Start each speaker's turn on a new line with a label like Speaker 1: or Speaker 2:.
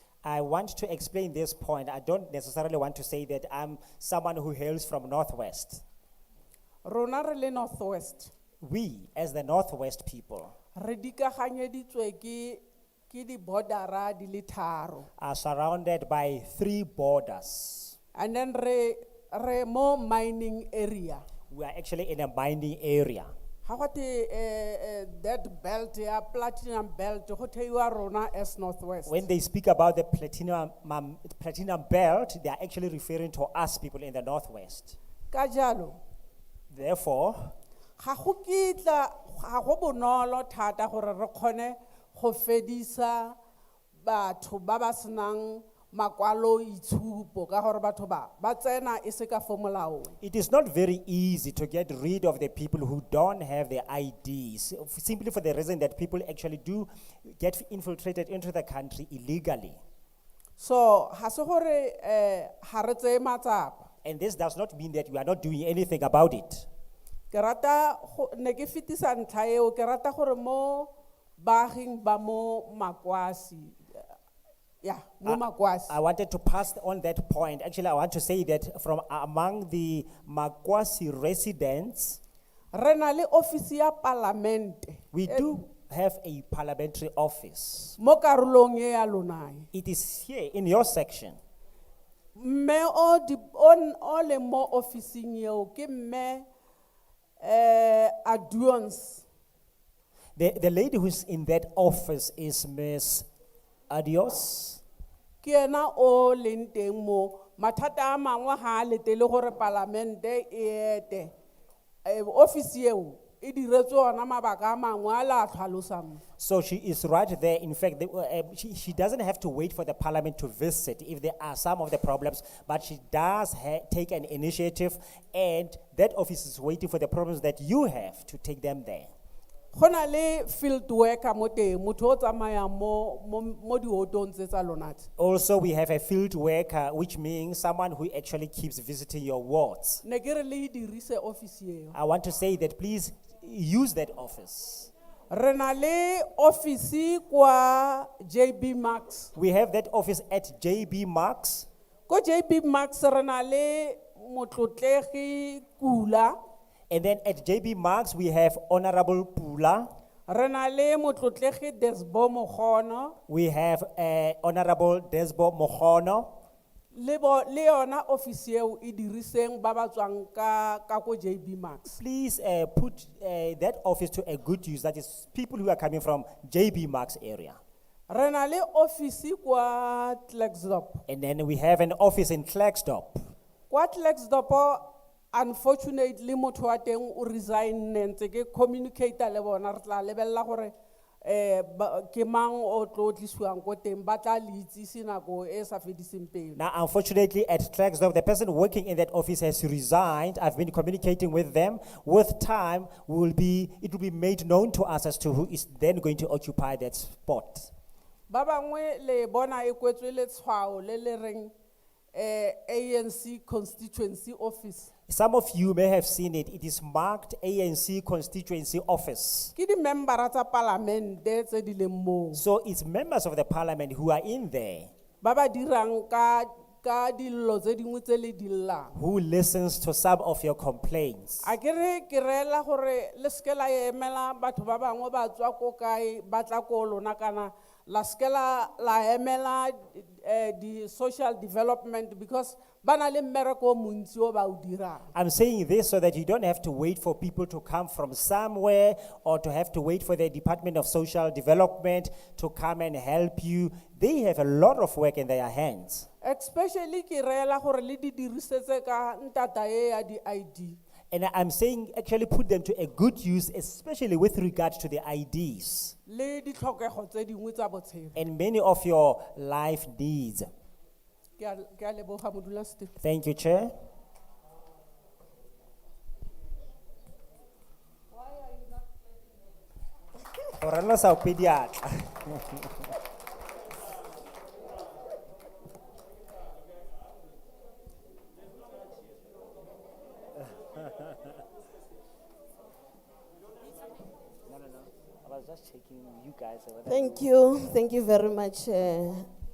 Speaker 1: I want to explain this point. I don't necessarily want to say that I'm someone who hails from Northwest.
Speaker 2: rona re le northwest
Speaker 1: We, as the Northwest people,
Speaker 2: re dikaganyeditswe ke ke di-bordera di le tharo
Speaker 1: are surrounded by three borders.
Speaker 2: and then re re mo mining area
Speaker 1: We are actually in a mining area.
Speaker 2: ga gote um that belt ya platinum belt go theiwa rona as northwest
Speaker 1: When they speak about the platinum, um, platinum belt, they are actually referring to us people in the Northwest.
Speaker 2: ka jalo
Speaker 1: Therefore,
Speaker 2: ga go kitla ga go bonolo thata gore re kgone go fedisa batho ba ba senang makwaloitshupo ka gore batho ba ba tsena e se ka fo molaong
Speaker 1: it is not very easy to get rid of the people who don't have their IDs, f- simply for the reason that people actually do get infiltrated into the country illegally.
Speaker 2: so ga se gore um ga re tseye matsapa
Speaker 1: And this does not mean that we are not doing anything about it.
Speaker 2: ke rata go- ne ke fetisa ntlha eo ke rata gore mo baaging ba mo makwasi ya mo makwasi
Speaker 1: I wanted to pass on that point. Actually, I want to say that from among the Makwasi residents,
Speaker 2: re na le ofisi ya palamente
Speaker 1: we do have a parliamentary office.
Speaker 2: mo karolong e ya lonae
Speaker 1: It is here in your section.
Speaker 2: mme o di- o n- o leng mo officing eo ke mme um aduance
Speaker 1: The, the lady who's in that office is Miss Adios.
Speaker 2: ke ena o leng teng mo mathata a mangwe ga a letele gore palamente e ete Eh, ofisi eo e diretswe ona mabaka a mangwe a le a tlhalosang
Speaker 1: So she is right there. In fact, the, uh, um, she, she doesn't have to wait for the parliament to visit if there are some of the problems, but she does ha- take an initiative, and that office is waiting for the problems that you have to take them there.
Speaker 2: go na le field worker mo teng motho o tsamayang mo- mo mo diotong tse tsa lona tse
Speaker 1: Also, we have a field worker, which means someone who actually keeps visiting your wards.
Speaker 2: ne ke re le e dirise ofisi eo
Speaker 1: I want to say that please use that office.
Speaker 2: re na le ofisi kwa jb max
Speaker 1: We have that office at JB Marks.
Speaker 2: ko jp max re na le motlotlegi kula
Speaker 1: And then at JB Marks, we have Honorable Pula.
Speaker 2: re na le motlotlegi desbo mogono
Speaker 1: We have uh, Honorable Desbo Mohono.
Speaker 2: le bo- le yona ofisi eo e diriseng ba ba tswang ka ka ko jb max
Speaker 1: Please uh, put uh, that office to a good use. That is people who are coming from JB Marks area.
Speaker 2: re na le ofisi kwa tlaxdop
Speaker 1: And then we have an office in Klerksdorp.
Speaker 2: kwa tlaxdop unfortunately motho wa teng o resigne ntse ke communicator le bona re tla lebelela gore um ke mang o tlo o tlisiwang ko teng ba tla le itsise nako e sa fediseng pelo
Speaker 1: Now, unfortunately, at Klerksdorp, the person working in that office has resigned. I've been communicating with them. With time, we will be, it will be made known to us as to who is then going to occupy that spot.
Speaker 2: ba bangwe le bona e kwetswe letshwao le le reng eh ANC constituency office
Speaker 1: Some of you may have seen it. It is marked ANC Constituency Office.
Speaker 2: ke di-membera tsa palamente tse di leng moo
Speaker 1: So it's members of the parliament who are in there,
Speaker 2: ba ba dirang ka ka dilo tse dingwe tse le di llang
Speaker 1: who listens to some of your complaints.
Speaker 2: a ke re ke reela gore le seke la emela batho ba bangwe ba tswa ko kae ba tla ko lona kana la seke la la emela um di-social development because ba na le mmereko o montsi o ba o dirang
Speaker 1: I'm saying this so that you don't have to wait for people to come from somewhere or to have to wait for the Department of Social Development to come and help you. They have a lot of work in their hands.
Speaker 2: especially ke reela gore le di dirisetse ka ntata e ya di-id
Speaker 1: And I- I'm saying actually put them to a good use, especially with regard to the IDs
Speaker 2: le ditlhokego tse dingwe tsa botshelo
Speaker 1: and many of your life needs.
Speaker 2: ke a- ke a leboga modulasetulo
Speaker 1: Thank you, Chair. Why are you not No, no, no. I was just checking you guys.
Speaker 3: Thank you, thank you very much, uh,